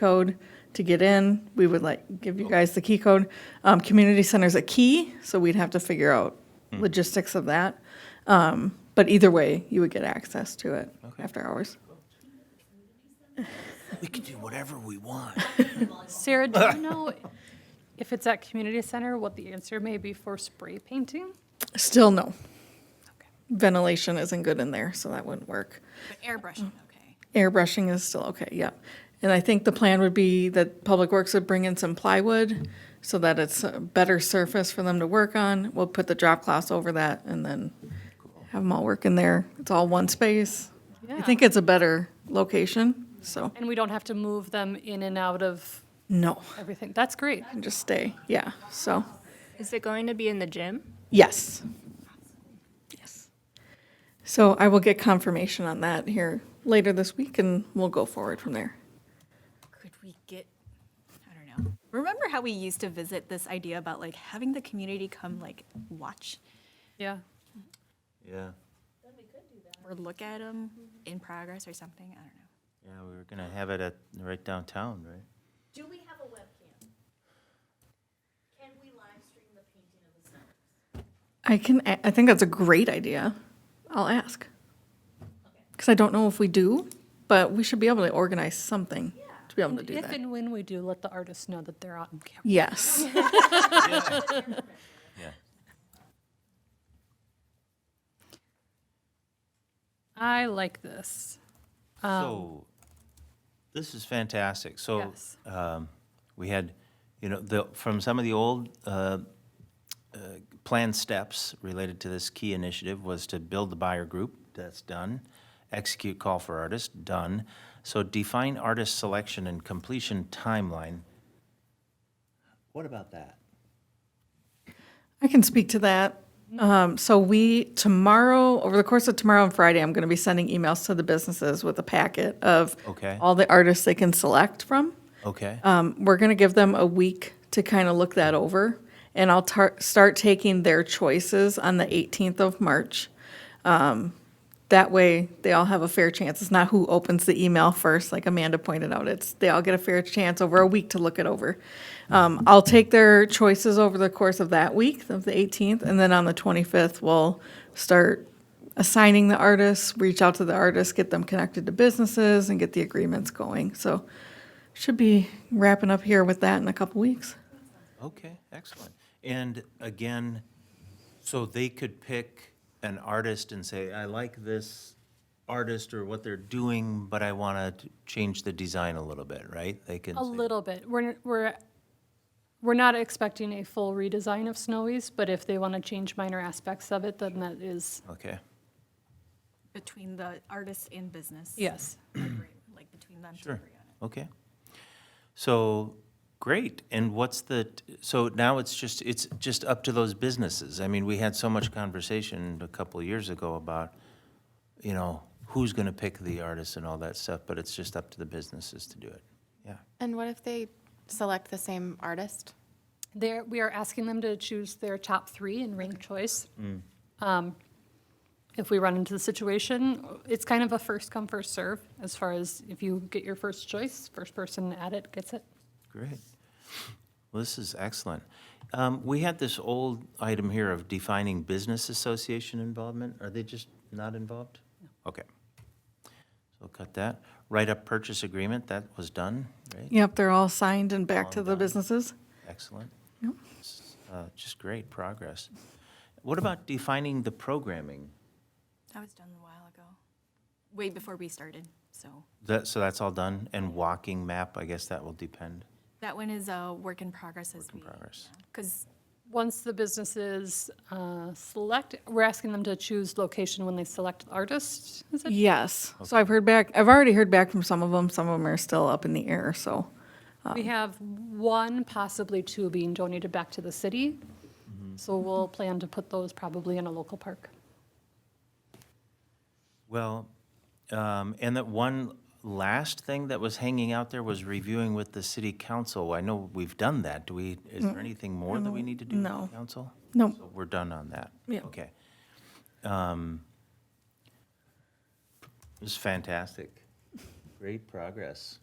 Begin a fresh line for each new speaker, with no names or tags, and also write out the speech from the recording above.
code to get in. We would like, give you guys the key code. Um, community center's a key, so we'd have to figure out logistics of that. Um, but either way, you would get access to it after hours.
We can do whatever we want.
Sarah, do you know if it's at community center, what the answer may be for spray painting?
Still no. Ventilation isn't good in there, so that wouldn't work.
But airbrushing, okay.
Airbrushing is still okay, yep. And I think the plan would be that Public Works would bring in some plywood so that it's a better surface for them to work on. We'll put the drop cloth over that and then have them all work in there. It's all one space. I
Yeah.
think it's a better location, so,
And we don't have to move them in and out of
no,
everything. That's great.
and just stay, yeah, so,
Is it going to be in the gym?
yes. Yes. So I will get confirmation on that here later this week and we'll go forward from there.
Could we get, I don't know. Remember how we used to visit this idea about like having the community come like watch
Yeah.
Yeah,
or look at them in progress or something? I don't know.
yeah, we were gonna have it at, right downtown, right?
Do we have a webcam? Can we live stream the painting of the sign?
I can, a- I think that's a great idea. I'll ask. Because I don't know if we do, but we should be able to organize something to be able to do
If
that.
and when we do, let the artists know that they're on camera.
Yes.
Yeah.
I like this.
So, this is fantastic.
Oh,
So,
Yes.
um, we had, you know, the, from some of the old, uh, uh, planned steps related to this key initiative was to build the buyer group, that's done. Execute call for artists, done. So define artist selection and completion timeline. What about that?
I can speak to that. Um, so we, tomorrow, over the course of tomorrow and Friday, I'm going to be sending emails to the businesses with a packet of
Okay.
all the artists they can select from.
Okay,
Um, we're going to give them a week to kind of look that over, and I'll tar- start taking their choices on the 18th of March. Um, that way, they all have a fair chance. It's not who opens the email first, like Amanda pointed out. It's they all get a fair chance over a week to look it over. Um, I'll take their choices over the course of that week, of the 18th, and then on the 25th, we'll start assigning the artists, reach out to the artists, get them connected to businesses, and get the agreements going. So, should be wrapping up here with that in a couple weeks.
okay, excellent. And again, so they could pick an artist and say, I like this artist or what they're doing, but I want to change the design a little bit, right? They can.
A
say-
little bit. We're, we're, we're not expecting a full redesign of Snowy's, but if they want to change minor aspects of it, then that is,
Okay,
Between the artist and business.
yes.
collaborate, Like between them. to
Sure.
agree on it.
okay. So, great. And what's the, so now it's just, it's just up to those businesses. I mean, we had so much conversation a couple of years ago about, you know, who's going to pick the artist and all that stuff, but it's just up to the businesses to do it. Yeah.
And what if they select the same artist?
There, we are asking them to choose their top three in ranked choice. Um, If we run into the situation, it's kind of a first come, first serve, as far as if you get your first choice, first person at it gets it.
Great. Well, this is excellent. Um, We had this old item here of defining business association involvement. Are they just not involved? Okay. So cut that. Write-up purchase agreement, that was done, right?
Yep, they're all signed and back to the businesses.
Excellent. S- uh, Just great progress. What about defining the programming?
That was done a while ago, way before we started. So
That, so that's all done? And walking map, I guess that will depend,
that one is a work in progress as we,
progress.
because
Once the businesses uh, select, we're asking them to choose location when they select the artist, is it?
Yes. So I've heard back, I've already heard back from some of them. Some of them are still up in the air, so.
We have one, possibly two being donated back to the city. So we'll plan to put those probably in a local park.
Well, um, and that one last thing that was hanging out there was reviewing with the city council. I know we've done that. Do we, is there anything more that we need to do with the
Mm, No.
council?
No.
So We're done on that?
Yeah.
Okay. Um, This is fantastic. Great progress.